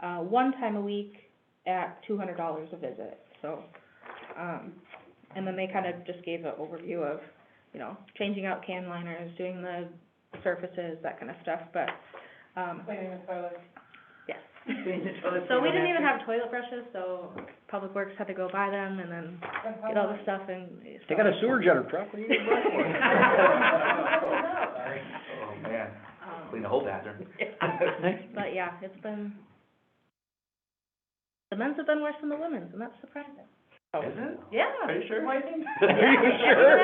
uh, one time a week at two hundred dollars a visit, so, um, and then they kind of just gave an overview of, you know, changing out can liners, doing the surfaces, that kind of stuff, but, um, Cleaning the toilets. yes. Doing the toilet So we didn't cleaning even after. have toilet brushes, so Public Works had to go buy them and then get all the stuff and. They got a sewer jetter truck, what do you want for it? Sorry. Oh, man, um, clean the whole bathroom. But yeah, it's been, the men's have been worse than the women's, and that's surprising. Is it? Yeah. Are you sure? Are you Yeah. sure?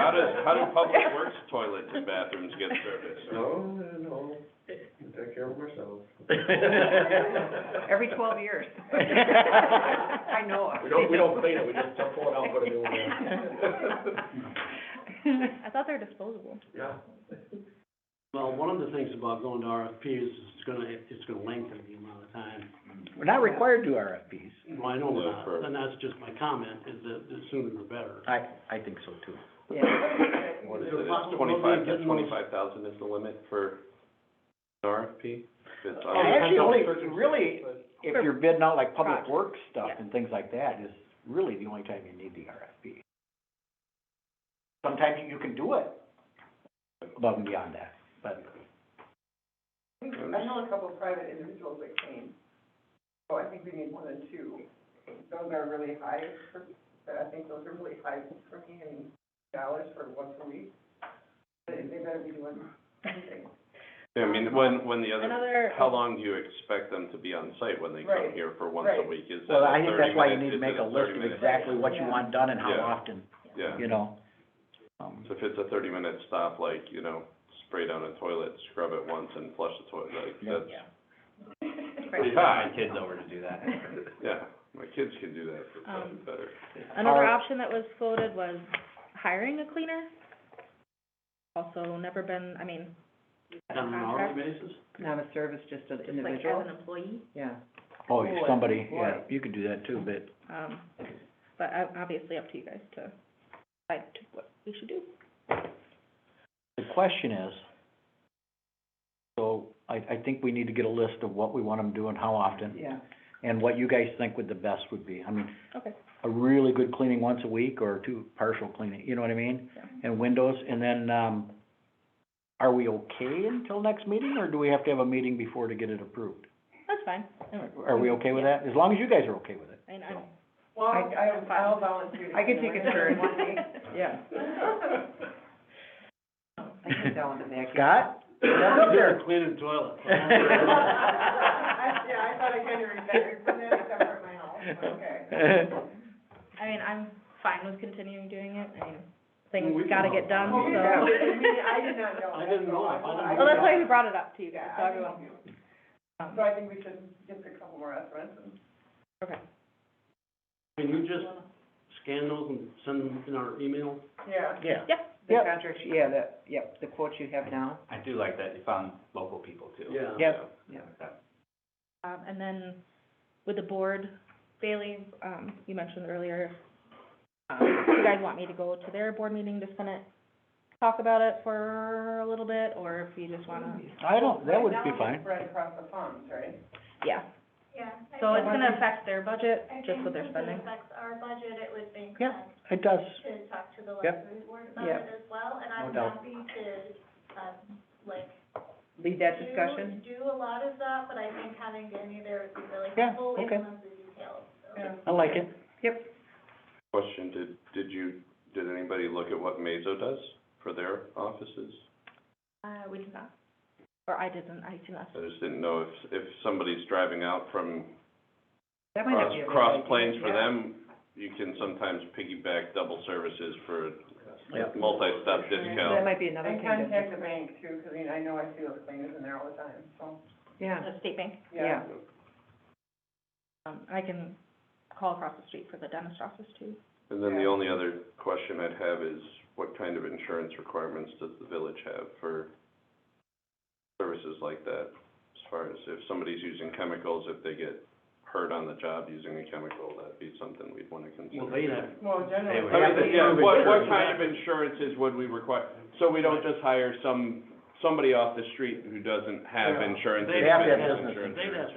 How do, how do public works toilets and bathrooms get serviced? No, no, no, I take care of myself. Every twelve years. I know. it. We don't, we don't clean it, we just pull it out, and put a new one in. I thought they were disposable. Yeah. Well, one of the things about going to RFP is it's gonna, it's gonna lengthen the amount of time. We're not required to do RFPs. Well, I know we're Yeah, not, for- and that's just my comment, is that the sooner the better. I, I think so too. What is Is it, there it's possible- twenty-five, getting those- twenty-five thousand is the limit for an RFP? It's uh, on- And actually, only, really, if you're bidding out like public Project. works stuff Yeah. and things like that, is really the only time you need the RFP. Sometimes you can do it above and beyond that, but I know a couple of private individuals that came, so I think we need more than two. Those are really high, for- but I think those are really high for me, I mean, dollars for once a week. They, they better be doing something. I mean, when, when the other, Another, how long do you expect them to be on site when they come Right, here for once a right. week? Is that Well, a I think that's why you 30 need to make minute- a is it list of 30 minute? exactly what you Yeah. want done and how Yeah. often, Yeah, you know? Um, so if it's a thirty-minute stop, like, you know, spray down a toilet, scrub it once and flush the toilet, like, Yeah. that's, Please, my kids over to do that. yeah, my kids can do that for probably Um, better. another Our- option that was floated was hiring a cleaner. Also never been, I mean, as a On an hourly contract, basis? Not a service, just an just like as an employee, yeah. Oh, Boy, somebody, yeah, boy. you could do that too, but um, but ob- obviously up to you guys to decide to what we should do. the question is, so I, I think we need to get a list of what we want them to do and how often, Yeah. and what you guys think would the best would be. I mean, Okay. a really good cleaning once a week or two partial cleaning, you know what I mean? Yeah. And windows, and then, um, are we okay until next meeting, or do we have to have a meeting before to get it approved? That's fine. Are we okay with that? As long as you guys are okay with it. And I'm, Well, I, I'll volunteer I could take a turn. Yeah. I can tell them that. Scott? Cleaning toilet. I- yeah, I thought I kinda retired from that, except for at my house, but okay. I mean, I'm fine with continuing doing it. I mean, Well, we things can gotta get help. done, so. Oh, Yeah, but I mean, I did not know. I didn't know. I Well, didn't I- Well, that's why we brought it up to you guys, Yeah, so I everyone. didn't know. um, So I think we should get a couple more estimates and. Okay. Can you just scan those and send them in our email? Yeah. Yeah. The Yep. contract, yeah, the, yep, the quotes you have now. I do like that you found local people too. Yeah. Yep. Yeah. Um, and then with the board, Bailey, um, you mentioned earlier, um, you guys want me to go to their board meeting to kind of talk about it for a little bit, or if you just wanna, I don't, that would be Right now, fine. it's spread across the funds, right? yeah. Yeah. So it's gonna affect their budget, just with their spending. Yeah, it does. Yep. Yep. No doubt. Lead that discussion? Yeah, okay. Yeah. I like it. Question, did, did you, did anybody look at what Mazo does for their offices? Uh, we did not, or I didn't, I did not. I just didn't know if, if somebody's driving out from That might not cross, be a bad cross idea. planes for Yeah. them, you can sometimes piggyback double services for Yep. multi-step So That discount. might be another And thing to. contact the bank too, 'cause I mean, I know I see those cleaners in there all the time, so, Yeah, The state bank, yeah. Yeah. um, I can call across the street for the dentist office too. And then the Yeah. only other question I'd have is, what kind of insurance requirements does the village have for services like that? As far as if somebody's using chemicals, if they get hurt on the job using a chemical, that'd be something we'd wanna consider. Well, they have, Well, generally. would- I Yeah, mean, yeah, what, what kind of insurances would we require? So we don't just hire some, somebody off the street who doesn't have Yeah. insurance. They and have to have business business insurance. they'd have